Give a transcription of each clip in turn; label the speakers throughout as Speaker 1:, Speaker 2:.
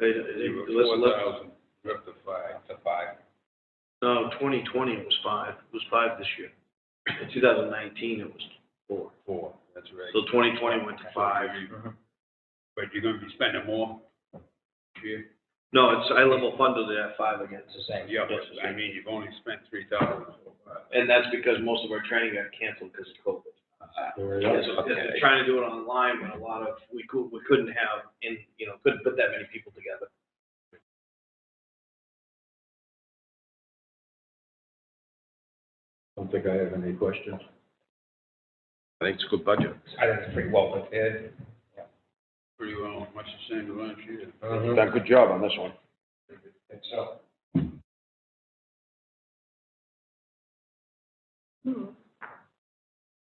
Speaker 1: It, it,
Speaker 2: It was
Speaker 1: let's,
Speaker 2: four
Speaker 1: let
Speaker 2: thousand, up to five, to five.
Speaker 1: no, twenty twenty was five, it was five this year. In two thousand nineteen, it was four.
Speaker 2: Four. That's right. Mm-hmm.
Speaker 1: So twenty twenty went to five.
Speaker 2: But you're gonna be spending more this year?
Speaker 1: No, it's, I level funded it at five again, it's the same.
Speaker 2: Yeah,
Speaker 1: Yes, it's the
Speaker 2: but I
Speaker 1: same.
Speaker 2: mean, you've only spent three thousand.
Speaker 1: And that's because most of our training got canceled because of COVID. Yeah, so, yeah, they're Trying to do it online, but a lot of, we could, we couldn't have, in, you know, couldn't put that many people together.
Speaker 3: don't think I have any questions.
Speaker 4: I think it's a good budget.
Speaker 5: I think it's pretty well prepared.
Speaker 2: Pretty well, much the same as last year.
Speaker 3: Mm-hmm.
Speaker 4: You've Done a good job on this one.
Speaker 5: Think so.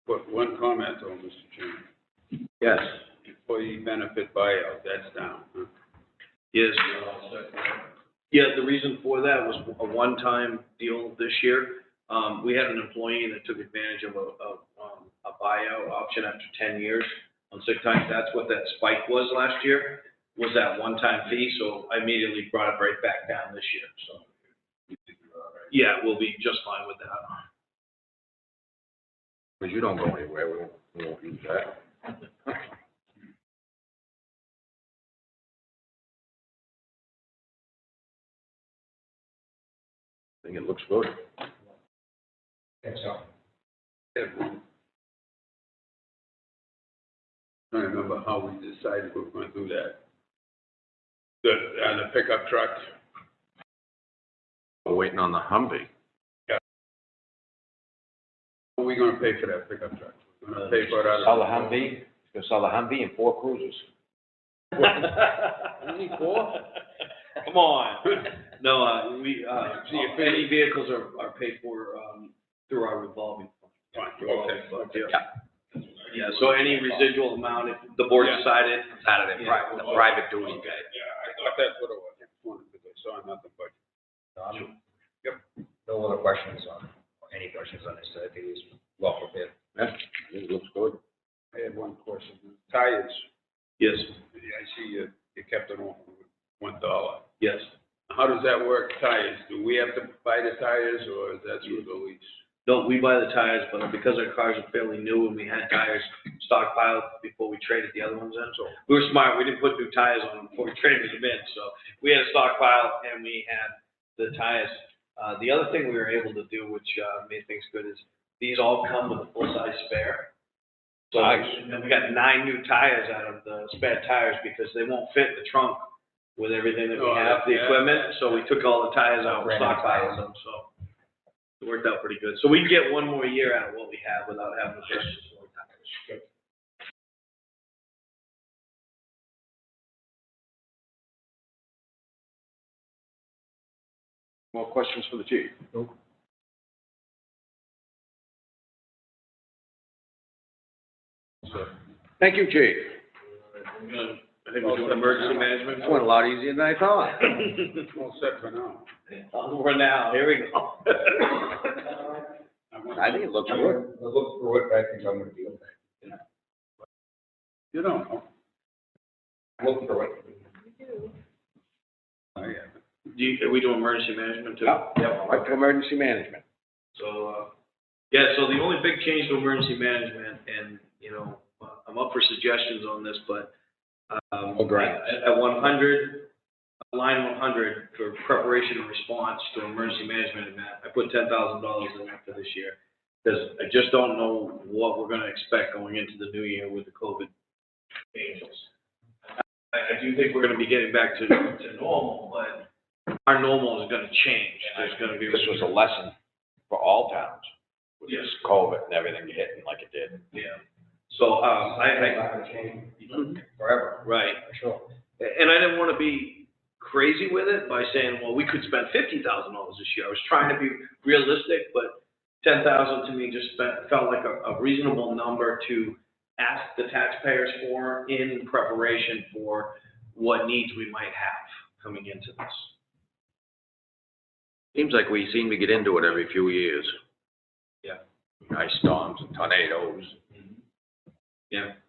Speaker 2: But one comment though, Mr. Chairman,
Speaker 4: Yes.
Speaker 2: employee benefit buyout, that's down. huh?
Speaker 1: Yes. Yeah, the reason for that was a one-time deal this year. Um, we had an employee that took advantage of a, of, um, a buyout option after ten years on sick time. That's what that spike was last year, was that one-time fee, so I immediately brought it right back down this year, so. Yeah, we'll be just fine with that.
Speaker 4: Because you don't go anywhere, we won't, we won't use that. I think it looks good.
Speaker 5: Think so.
Speaker 2: I don't remember how we decided we were gonna do that. The, uh, the pickup truck,
Speaker 4: We're waiting on the Humvee.
Speaker 2: are we gonna pay for that pickup truck? We're Gonna pay for it out of.
Speaker 3: Sell the Humvee, gonna sell the Humvee and four cruisers.
Speaker 1: Only four? Come on. No, uh, we, uh,
Speaker 2: So you're-
Speaker 1: any vehicles are, are paid for, um, through our revolving. fund.
Speaker 2: Fine, okay, okay.
Speaker 1: Yeah, so any residual amount, if the board
Speaker 2: Yeah.
Speaker 1: decided.
Speaker 4: Out of
Speaker 1: the pri-
Speaker 4: private,
Speaker 1: the
Speaker 4: private duty
Speaker 2: Okay, yeah, I thought that's what it was, because I saw nothing but.
Speaker 5: No, I'm- Um, No other questions on, or any questions on this, I think it's well prepared.
Speaker 4: It looks good.
Speaker 2: I had one question. Tires,
Speaker 1: Yes,
Speaker 2: I see you, you kept it on one dollar.
Speaker 1: yes.
Speaker 2: How does that work, tires? Do we have to buy the tires, or is that through the lease?
Speaker 1: No, we buy the tires, but because our cars are fairly new and we had tires stockpiled before we traded the other ones in, so we were smart, we didn't put new tires on them before we traded them in, so we had a stockpile and we had the tires. Uh, the other thing we were able to do, which, uh, made things good, is these all come with a full-size spare. So,
Speaker 4: Nice.
Speaker 1: and we got nine new tires out of the spare tires because they won't fit in the trunk with everything that we
Speaker 2: Oh,
Speaker 1: have, the
Speaker 2: yeah.
Speaker 1: equipment, so we took all the tires out,
Speaker 5: Brand new
Speaker 1: stockpiled
Speaker 5: tires.
Speaker 1: them, so. It worked out pretty good. So we get one more year out of what we have without having to purchase more tires.
Speaker 4: More questions for the chief?
Speaker 2: So,
Speaker 4: Thank you, chief.
Speaker 1: I think we're doing emergency management.
Speaker 4: That went a lot easier than I thought.
Speaker 2: All set for now.
Speaker 1: For now, here we go.
Speaker 2: want-
Speaker 4: I think it looks
Speaker 5: I'm
Speaker 4: good.
Speaker 5: gonna look through it, but I think I'm gonna be okay.
Speaker 2: You don't know.
Speaker 5: Look through it.
Speaker 2: I haven't.
Speaker 1: Do you, are we doing emergency management too?
Speaker 4: Yeah, right to emergency management.
Speaker 1: So, uh, yeah, so the only big change to emergency management, and, you know, I'm up for suggestions on this, but, um,
Speaker 4: Oh, great.
Speaker 1: at- at one hundred, line one hundred for preparation and response to emergency management event, I put ten thousand dollars in there for this year. Because I just don't know what we're gonna expect going into the new year with the COVID changes. I, I do think we're gonna be getting back to, to normal, but our normal is gonna change. There's gonna be.
Speaker 4: This was a lesson for all towns, with
Speaker 1: Yes.
Speaker 4: this COVID and everything hitting like it did.
Speaker 1: Yeah, so, um, I,
Speaker 5: Not gonna change
Speaker 1: I,
Speaker 5: forever,
Speaker 1: right,
Speaker 5: for sure.
Speaker 1: and I didn't wanna be crazy with it by saying, well, we could spend fifty thousand dollars this year. I was trying to be realistic, but ten thousand to me just fe- felt like a, a reasonable number to ask the taxpayers for in preparation for what needs we might have coming into this.
Speaker 4: Seems like we seem to get into it every few years.
Speaker 1: Yeah.
Speaker 3: Mm-hmm.
Speaker 4: Ice storms and tornadoes.
Speaker 1: Yeah.